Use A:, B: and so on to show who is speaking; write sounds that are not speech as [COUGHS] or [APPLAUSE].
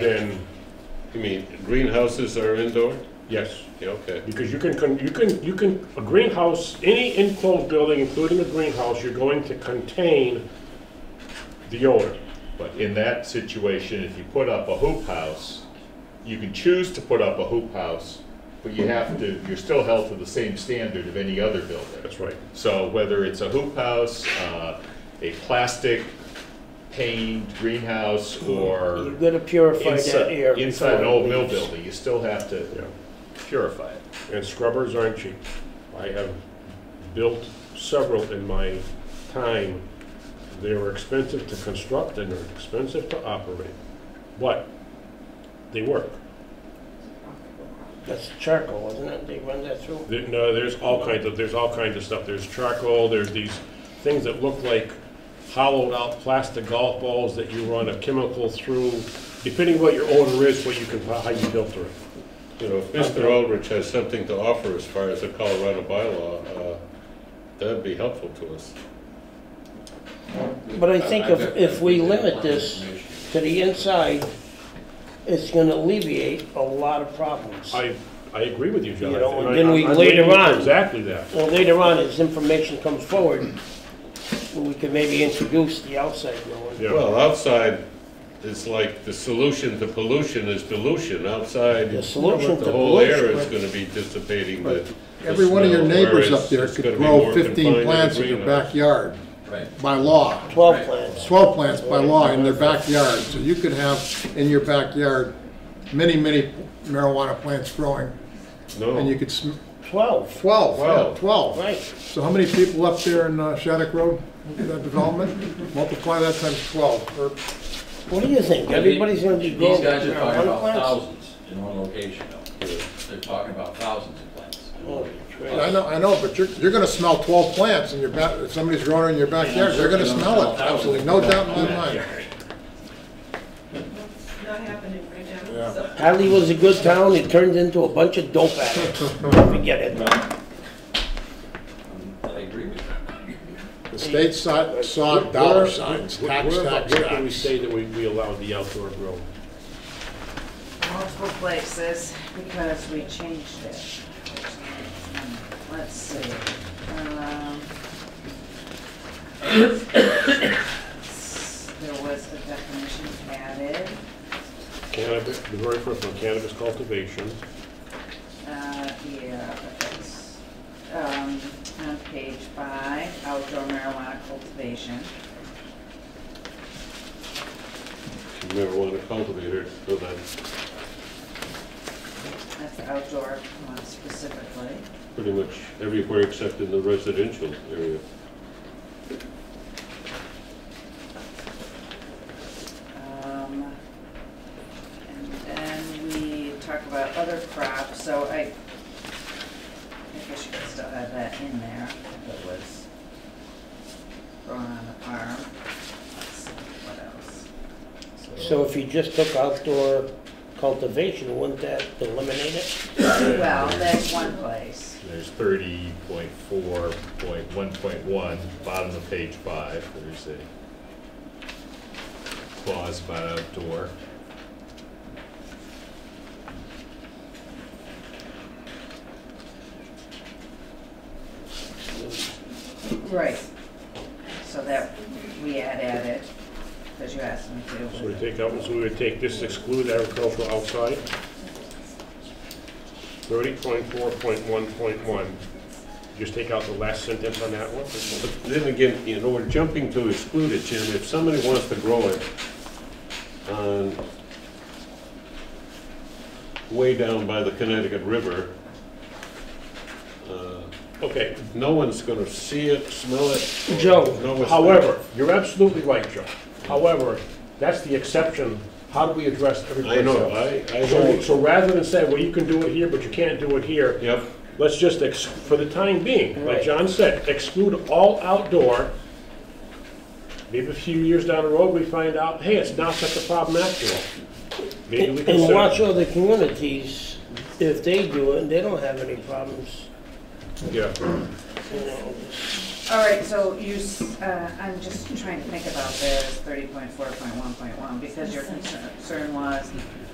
A: Then,
B: You mean greenhouses are indoor?
A: yes,
B: Yeah, okay.
A: because you can, con- you can, you can, a greenhouse, any enclosed building, including a greenhouse, you're going to contain the odor.
C: But in that situation, if you put up a hoop house, you can choose to put up a hoop house, but you have to, you're still held to the same standard of any other building.
A: That's right.
C: So whether it's a hoop house, uh, a plastic paned greenhouse,
D: You're
C: or
D: gonna purify that air.
C: inside, inside an
D: before it
C: old mill
D: leaves.
C: building, you still have to
A: Yeah.
C: purify it.
A: And scrubbers aren't cheap. I have built several in my time. They were expensive to construct and they're expensive to operate, but they work.
D: That's charcoal, isn't it? They run that through.
A: There- No, there's all kinds of, there's all kinds of stuff. There's charcoal, there's these things that look like hollowed out plastic golf balls that you run a chemical through, depending what your odor is, what you can, how you filter it.
B: You know, if Mr. Aldrich has something to offer as far as a Colorado bylaw, uh, that'd be helpful to us.
D: But I think if, if we limit this to the inside, it's gonna alleviate a lot of problems.
A: I, I agree with you, John.
D: You know,
A: And
D: and
A: I-
D: then we
A: I'm
D: later
A: waiting for
D: on-
A: Exactly that.
D: Well, later on, as information comes forward, we could maybe introduce the outside growing.
A: Yeah.
B: Well, outside is like the solution to pollution is dilution. Outside,
D: The solution to
B: the whole air
D: pollution,
B: is
D: right.
B: going to be dissipating the. the
E: Every one of your
B: smell,
E: neighbors
B: whereas
E: up there
B: it's gonna
E: could
B: be
E: grow
B: more confined
E: fifteen
B: the
E: plants in your
B: greenhouse.
E: backyard
F: Right.
E: by law.
D: Twelve plants.
E: Twelve plants by law in their backyard, so you could have in your backyard many, many marijuana plants growing, and you
B: No,
E: could, sm-
D: Twelve,
E: twelve, yeah,
B: Twelve.
E: twelve.
D: right.
E: So how many people up there in uh, Shattuck Road, that development? Multiply that times twelve, or
D: What do you think? Everybody's gonna be growing
F: These guys are talking
D: marijuana
F: about
D: plants?
F: thousands in one location though. They're talking about thousands of plants. in one
D: Oh,
F: location.
D: great.
E: I know, I know, but you're, you're gonna smell twelve plants in your back, if somebody's growing in your backyard, you're gonna smell it, absolutely, no doubt in my mind.
G: It's not happening right
E: Yeah.
G: now, so.
D: Hadley was a good town, it turned into a bunch of dope
F: [LAUGHS]
D: addicts. Forget it.
F: I agree with you.
E: The state saw, saw
A: Where-
E: dollar
A: where-
E: signs,
A: where-
E: tax,
A: where-
E: tax,
A: Where can we
E: tax.
A: say that we, we allow the outdoor grow?
H: multiple places because we changed it. Let's see. um, [COUGHS] There was a definition added,
A: Cannabis, the very first one, cannabis cultivation.
H: uh, yeah, that's, um, on page five, outdoor marijuana cultivation.
B: you never want to cultivate it, so that,
H: That's the outdoor one specifically.
B: pretty much everywhere except in the residential area.
H: Um, And then we talk about other crops, so I, I guess you could still have that in there if it was grown on the farm. Let's see, What else?
D: So if you just took outdoor cultivation, wouldn't that eliminate it?
H: Well, that's one place.
C: There's thirty point four point one point one, bottom of page five, there's a clause about outdoor.
H: Right. So that we had added, because you asked me to.
A: So we take out, so we would take this exclude agricultural outside. Thirty point four point one point one. Just take out the last sentence on that one.
B: But Then again, you know, we're jumping to exclude it, Jim. If somebody wants to grow it on, way down by the Connecticut River, uh,
A: Okay,
B: no one's gonna see it, smell it. or
D: Joe,
B: know it's
A: however, you're absolutely right, Joe. However, that's the exception. How do we address
B: there.
A: everybody
B: I
A: else?
B: know, I, I
A: So,
B: hold,
A: so rather than say, well, you can do it here, but you can't do it here,
B: yep,
A: let's just, ex- for the time being, like
D: Right.
A: John said, exclude all outdoor. Maybe a few years down the road, we find out, hey, it's not such a problem after all. Maybe we
D: And watch
A: can.
D: other communities, if they do it, and they don't have any problems,
A: Yeah.
D: you know.
H: All right, so you, s- uh, I'm just trying to think about this thirty point four point one point one, because your concern was